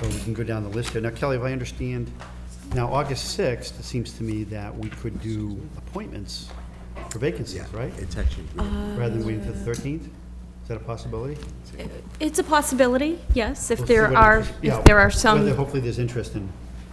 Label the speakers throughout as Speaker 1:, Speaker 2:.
Speaker 1: So we can go down the list here. Now Kelly, if I understand, now August 6th, it seems to me that we could do appointments for vacancies, right?
Speaker 2: It's actually,
Speaker 3: Uh,
Speaker 1: Rather than waiting till the 13th? Is that a possibility?
Speaker 3: It's a possibility, yes, if
Speaker 1: We'll see
Speaker 3: there
Speaker 1: what
Speaker 3: are,
Speaker 1: interest- yeah,
Speaker 3: if there are
Speaker 1: whether-
Speaker 3: some,
Speaker 1: Hopefully there's interest in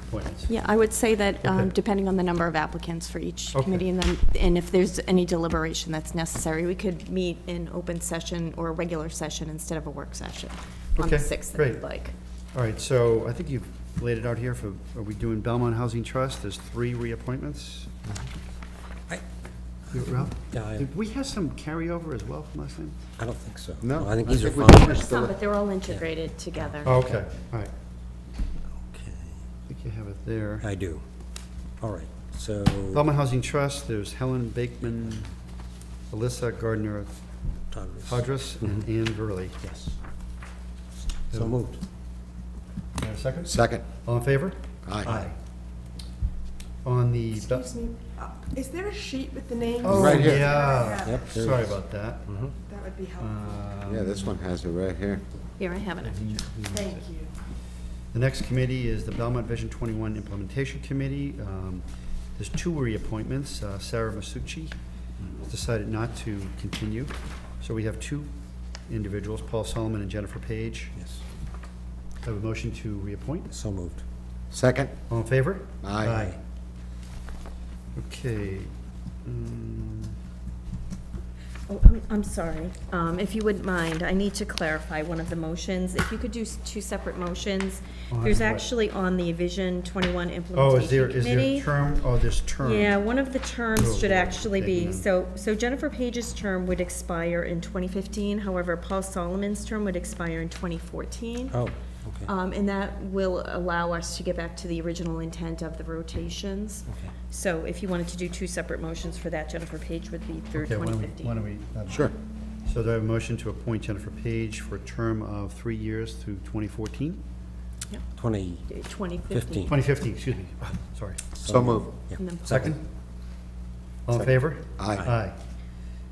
Speaker 1: appointments.
Speaker 3: yeah, I would say that, um,
Speaker 1: Okay.
Speaker 3: depending on the number of applicants for each
Speaker 1: Okay.
Speaker 3: committee, and then, and if there's any deliberation that's necessary, we could meet in open session or a regular session instead of a work session on the
Speaker 1: Okay,
Speaker 3: 6th, if
Speaker 1: great.
Speaker 3: you'd like.
Speaker 1: All right, so I think you've laid it out here for, are we doing Belmont Housing Trust? There's three reappointments.
Speaker 2: I-
Speaker 1: You- Ralph?
Speaker 2: Yeah, I-
Speaker 1: Did we have some carryover as well from last time?
Speaker 2: I don't think so.
Speaker 1: No,
Speaker 2: I think
Speaker 1: I
Speaker 2: these are
Speaker 1: think we
Speaker 2: fine.
Speaker 1: finished
Speaker 3: Some, but they're all integrated together.
Speaker 1: Oh, okay, all right.
Speaker 2: Okay,
Speaker 1: I think you have it there.
Speaker 2: I do. All right, so,
Speaker 1: Belmont Housing Trust, there's Helen Bakeman, Alyssa Gardner
Speaker 2: Todd,
Speaker 1: Hodges, and Ann Verley.
Speaker 2: yes. So moved.
Speaker 1: You have a second?
Speaker 4: Second.
Speaker 1: All in favor?
Speaker 4: Aye.
Speaker 1: On the.
Speaker 5: Excuse me, uh, is there a sheet with the names?
Speaker 1: Oh,
Speaker 4: Right here. Uh,
Speaker 1: yeah.
Speaker 2: Yep, there it
Speaker 1: Sorry
Speaker 2: is.
Speaker 1: about that.
Speaker 5: That would be helpful,
Speaker 4: Yeah, this one has it right here.
Speaker 3: Here, I have it.
Speaker 5: thank you.
Speaker 1: The next committee is the Belmont Vision 21 Implementation Committee. Um, There's two reappointments. Uh, Sarah Masucci has decided not to continue. So we have two individuals, Paul Solomon and Jennifer Page.
Speaker 2: Yes,
Speaker 1: Have a motion to reappoint.
Speaker 2: so moved.
Speaker 4: Second?
Speaker 1: All in favor?
Speaker 4: Aye.
Speaker 1: Okay. mm,
Speaker 3: Oh, I'm, I'm sorry. Um, if you wouldn't mind, I need to clarify one of the motions. If you could do s- two separate motions.
Speaker 1: On
Speaker 3: There's
Speaker 1: what?
Speaker 3: actually on the Vision 21
Speaker 1: Oh, is there,
Speaker 3: Implementation
Speaker 1: is there
Speaker 3: Committee.
Speaker 1: term, oh, there's term.
Speaker 3: Yeah, one of the terms should
Speaker 1: Oh,
Speaker 3: actually
Speaker 1: taking
Speaker 3: be,
Speaker 1: on.
Speaker 3: so, so Jennifer Page's term would expire in 2015. However, Paul Solomon's term would expire in 2014.
Speaker 2: Oh, okay.
Speaker 3: Um, and that will allow us to get back to the original intent of the rotations.
Speaker 2: Okay.
Speaker 3: So if you wanted to do two separate motions for that, Jennifer Page would be through
Speaker 1: Okay, why don't we-
Speaker 3: 2015.
Speaker 1: why don't we, uh,
Speaker 4: Sure.
Speaker 1: So do I have a motion to appoint Jennifer Page for a term of three years through 2014?
Speaker 2: Twenty,
Speaker 3: 2015.
Speaker 1: 2015, excuse me, sorry.
Speaker 4: So moved.
Speaker 2: yeah.
Speaker 3: And then-
Speaker 1: Second? All in favor?
Speaker 4: Aye.
Speaker 1: Aye.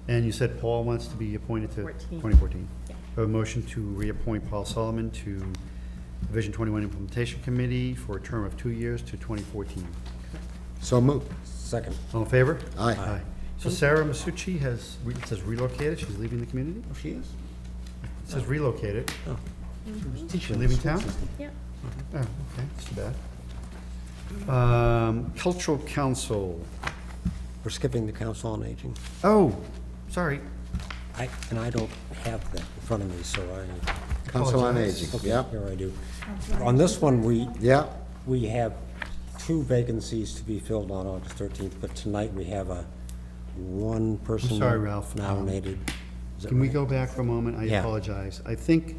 Speaker 1: And you said Paul wants to be appointed to?
Speaker 3: Fourteen.
Speaker 1: 2014.
Speaker 3: Yeah.
Speaker 1: I have a motion to reappoint Paul Solomon to the Vision 21 Implementation Committee for a term of two years to 2014.
Speaker 4: So moved.
Speaker 2: Second,
Speaker 1: All in favor?
Speaker 4: Aye.
Speaker 1: So Sarah Masucci has, re- it says relocated, she's leaving the community? Oh, she is? Oh, It says relocated. She's leaving town?
Speaker 3: Yeah.
Speaker 1: Oh, okay, that's too bad. Um, Cultural Council,
Speaker 2: we're skipping the Council on Aging.
Speaker 1: oh, sorry,
Speaker 2: I, and I don't have that in front of me, so I,
Speaker 4: Council on
Speaker 1: Apologize.
Speaker 4: Aging, yeah,
Speaker 2: here I do. On this one, we,
Speaker 4: yeah.
Speaker 2: we have two vacancies to be filled on August thirteenth, but tonight we have a one person
Speaker 1: sorry, Ralph.
Speaker 2: nominated. Is that
Speaker 1: can we
Speaker 2: right?
Speaker 1: go back for a moment? I
Speaker 2: Yeah.
Speaker 1: apologize. I think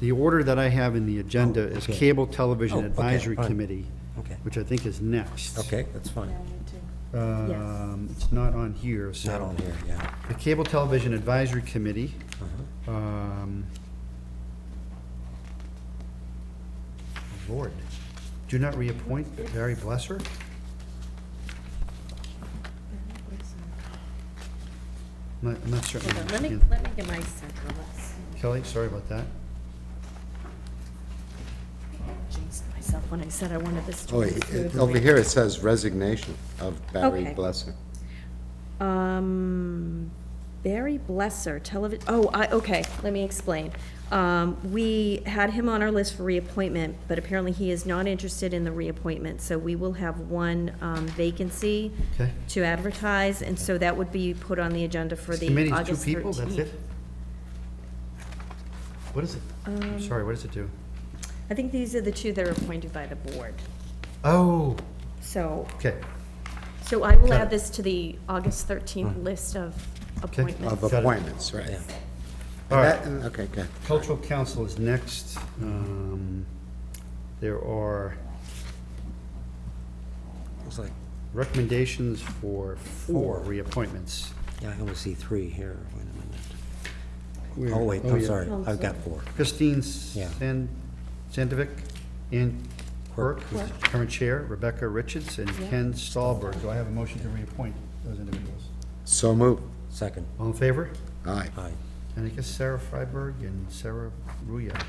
Speaker 1: the order that I have in the agenda is
Speaker 2: okay.
Speaker 1: Cable
Speaker 2: Oh,
Speaker 1: Television
Speaker 2: okay,
Speaker 1: Advisory
Speaker 2: fine.
Speaker 1: Committee,
Speaker 2: Okay.
Speaker 1: which I think is next.
Speaker 2: Okay, that's fine.
Speaker 1: Um, It's not on here, so.
Speaker 2: Not on here, yeah.
Speaker 1: The Cable Television Advisory Committee.
Speaker 2: Uh-huh.
Speaker 1: um, oh, Lord, do not reappoint Barry Blesser? I'm not- I'm not certain. I
Speaker 3: Hold on, Let me,
Speaker 1: understand.
Speaker 3: let me get my central list.
Speaker 1: Kelly, sorry about that.
Speaker 3: Jinxed myself when I said I wanted this to
Speaker 4: Oh,
Speaker 3: be
Speaker 4: it- it-
Speaker 3: smoothly.
Speaker 4: over here it says resignation of Barry
Speaker 3: Okay.
Speaker 4: Blessing.
Speaker 3: Um, Barry Blesser, television, oh, I, okay, let me explain. Um, we had him on our list for reappointment, but apparently he is not interested in the reappointment, so we will have one, um, vacancy
Speaker 1: Okay.
Speaker 3: to advertise, and so that would be put on the agenda for the
Speaker 1: Committee's two
Speaker 3: August thirteenth.
Speaker 1: people, that's it? What is it?
Speaker 3: Um,
Speaker 1: I'm Sorry, what does it do?
Speaker 3: I think these are the two that are appointed by the board,
Speaker 1: Oh,
Speaker 3: so,
Speaker 1: okay.
Speaker 3: so I will
Speaker 1: Got
Speaker 3: add
Speaker 1: it.
Speaker 3: this to the August thirteenth list of appointments.
Speaker 4: Of
Speaker 1: Got it.
Speaker 4: appointments, right.
Speaker 1: All right.
Speaker 4: That- Okay, good.
Speaker 1: Cultural Council is next. Um, There are
Speaker 2: It's like,
Speaker 1: recommendations for four
Speaker 2: Four.
Speaker 1: reappointments.
Speaker 2: yeah, I only see three here. Wait a
Speaker 1: Where?
Speaker 2: minute. Oh, wait,
Speaker 1: Oh,
Speaker 2: I'm
Speaker 1: yeah.
Speaker 2: sorry.
Speaker 3: Oh,
Speaker 2: I've got four.
Speaker 1: Christine
Speaker 2: Yeah.
Speaker 1: San- Sandovic, Ann Quirk, who's the current chair, Rebecca Richards, and Ken Stahlberg. Do I have a motion to reappoint those individuals?
Speaker 4: So moved.
Speaker 2: Second,
Speaker 1: All in favor?
Speaker 4: Aye.
Speaker 2: aye.
Speaker 1: And I guess Sarah Freiberg and Sarah Ruya. Uh,